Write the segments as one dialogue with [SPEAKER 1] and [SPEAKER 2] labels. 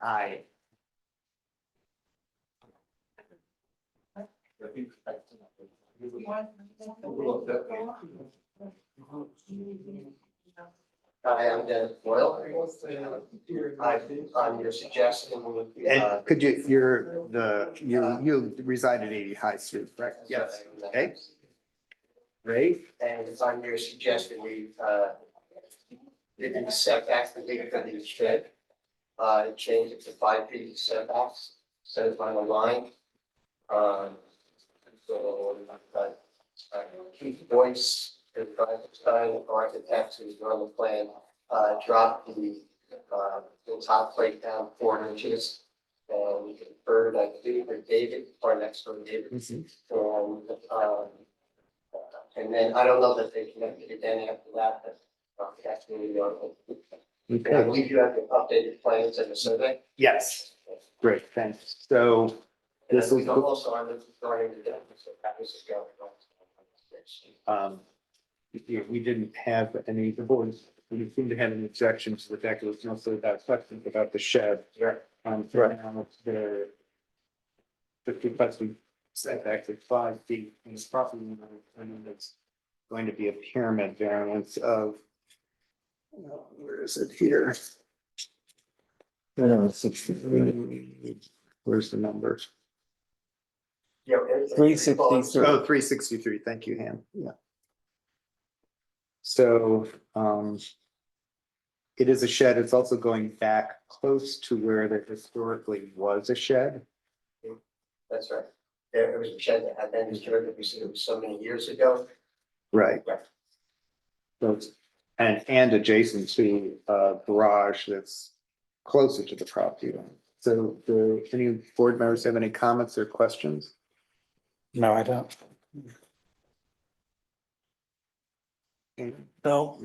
[SPEAKER 1] I. I am Dennis Boyle. I, on your suggestion, uh,
[SPEAKER 2] And could you, you're the, you, you reside at eighty High Street, correct? Yes. Okay. Ray?
[SPEAKER 1] And it's on your suggestion, we, uh, didn't setback the big for the shed. Uh, change it to five feet setbacks, set it by the line. Um, so, uh, uh, Keith Boyce, the project style architect who's on the plan, uh, dropped the, uh, the top plate down four inches. And we conferred, I think, with David, our next door David,
[SPEAKER 2] Mm-hmm.
[SPEAKER 1] um, um, and then I don't know that they connected it then after that, but uh, that's really the article. And I
[SPEAKER 2] Okay.
[SPEAKER 1] believe you have the updated plans and the survey.
[SPEAKER 2] Yes, great, thanks. So
[SPEAKER 1] And
[SPEAKER 2] This
[SPEAKER 1] then we
[SPEAKER 2] is-
[SPEAKER 1] go also on the regarding the deck, so that was just going on.
[SPEAKER 2] um, we- we didn't have any, the board, we seemed to have an objection to the deck. It was mostly about questions about the shed.
[SPEAKER 1] Right.
[SPEAKER 2] Um, so now it's there. Fifty plus we set back to five feet and it's probably, and then it's going to be a pyramid variance of. uh, Where is it here? Uh, sixty- Where's the number?
[SPEAKER 1] You know, it's- it's-
[SPEAKER 3] 363.
[SPEAKER 2] Oh, three sixty-three, thank you, Ham, yeah. So, um. It is a shed, it's also going back close to where there historically was a shed.
[SPEAKER 1] That's right. There was a shed that had been disturbed, we said it was so many years ago.
[SPEAKER 2] Right.
[SPEAKER 1] Right.
[SPEAKER 2] So it's, and, and adjacent to a garage that's closer to the property line. So do any board members have any comments or questions?
[SPEAKER 3] No, I don't. No.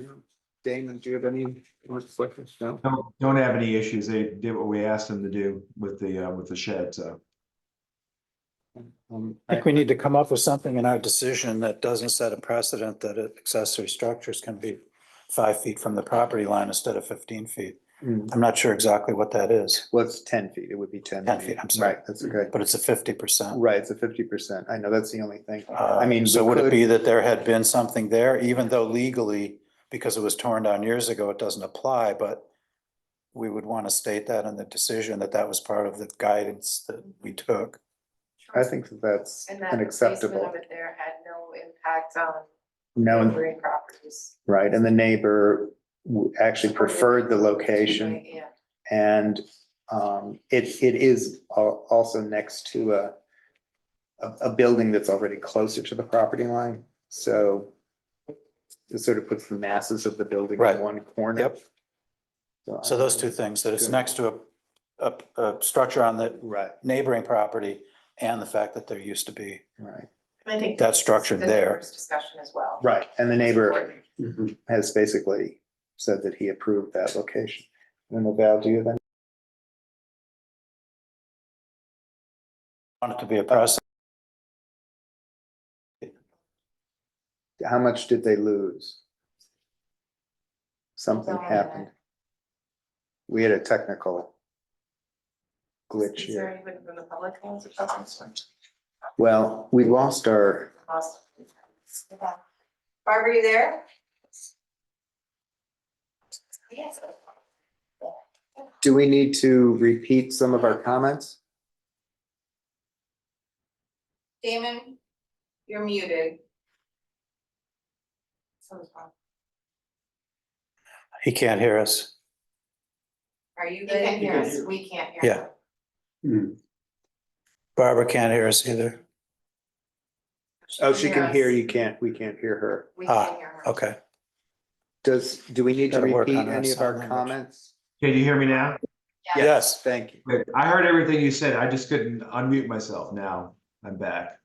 [SPEAKER 2] Damon, do you have any more questions? No?
[SPEAKER 4] Don't, don't have any issues. They did what we asked them to do with the, uh, with the shed, so.
[SPEAKER 2] Um,
[SPEAKER 3] I think we need to come up with something in our decision that doesn't set a precedent that accessory structures can be five feet from the property line instead of fifteen feet.
[SPEAKER 2] mm,
[SPEAKER 3] I'm not sure exactly what that is,
[SPEAKER 2] Well, it's ten feet, it would be ten.
[SPEAKER 3] 10 feet, I'm sorry.
[SPEAKER 2] Right, that's okay.
[SPEAKER 3] but it's a fifty percent. uh,
[SPEAKER 2] Right, it's a fifty percent. I know, that's the only thing. I
[SPEAKER 3] I
[SPEAKER 2] mean,
[SPEAKER 3] mean, so would
[SPEAKER 2] we
[SPEAKER 3] it be that there had been something there, even though legally, because it was torn down years ago, it doesn't apply, but we would want to state that in the decision, that that was part of the guidance that we took.
[SPEAKER 2] I think that that's
[SPEAKER 5] And that placement
[SPEAKER 2] unacceptable.
[SPEAKER 5] of it there had no impact on
[SPEAKER 2] No,
[SPEAKER 5] neighboring properties.
[SPEAKER 2] right, and the neighbor w- actually preferred the location
[SPEAKER 5] Yeah,
[SPEAKER 2] and um, it, it is al- also next to a a, a building that's already closer to the property line, so it sort of puts the masses of the building
[SPEAKER 3] Right.
[SPEAKER 2] in one corner.
[SPEAKER 3] Yep.
[SPEAKER 2] I-
[SPEAKER 3] So those two things, that it's
[SPEAKER 2] Good.
[SPEAKER 3] next to a, a, a structure on the
[SPEAKER 2] Right,
[SPEAKER 3] neighboring property and the fact that there used to be
[SPEAKER 2] right,
[SPEAKER 5] I think.
[SPEAKER 3] that structure
[SPEAKER 5] the
[SPEAKER 3] there.
[SPEAKER 5] neighbors' Discussion as well.
[SPEAKER 2] right, and the neighbor Mm-hmm. has basically said that he approved that location. And the Val, do you then?
[SPEAKER 3] Want it to be a process.
[SPEAKER 2] How much did they lose? Something
[SPEAKER 5] Don't know.
[SPEAKER 2] happened. We had a technical glitch
[SPEAKER 5] Is there
[SPEAKER 2] here.
[SPEAKER 5] anyone from the public who wants to talk on this one?
[SPEAKER 2] Well, we lost our,
[SPEAKER 5] Awesome. Barbara, you there? Yes.
[SPEAKER 2] do we need to repeat some of our comments?
[SPEAKER 5] Damon, you're muted. Someone's on.
[SPEAKER 3] He can't hear us.
[SPEAKER 5] Are you
[SPEAKER 1] They
[SPEAKER 5] can
[SPEAKER 1] can
[SPEAKER 5] hear
[SPEAKER 1] hear
[SPEAKER 5] us?
[SPEAKER 1] you.
[SPEAKER 5] We can't hear.
[SPEAKER 3] Yeah.
[SPEAKER 5] you.
[SPEAKER 3] Barbara can't hear us either.
[SPEAKER 2] Oh, she can hear,
[SPEAKER 5] us.
[SPEAKER 2] you can't, we can't hear her.
[SPEAKER 5] We
[SPEAKER 3] Ah,
[SPEAKER 5] can hear her.
[SPEAKER 3] Okay.
[SPEAKER 2] Does, do we need to
[SPEAKER 3] Gotta work
[SPEAKER 2] repeat
[SPEAKER 3] on our
[SPEAKER 2] any of our
[SPEAKER 3] sign language.
[SPEAKER 2] comments?
[SPEAKER 4] Can you hear me now?
[SPEAKER 5] Yeah.
[SPEAKER 3] Yes.
[SPEAKER 2] Thank you.
[SPEAKER 4] Good. I heard everything you said. I just couldn't unmute myself. Now I'm back.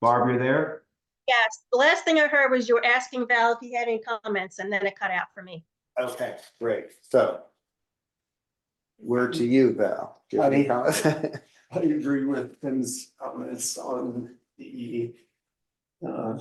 [SPEAKER 4] Barb, you're there?
[SPEAKER 6] Yes, the last thing I heard was you were asking Val if he had any comments, and then it cut out for me.
[SPEAKER 2] Okay, great, so. Word to you, Val. Do you have any comments?
[SPEAKER 7] I agree with Tim's comments on the uh,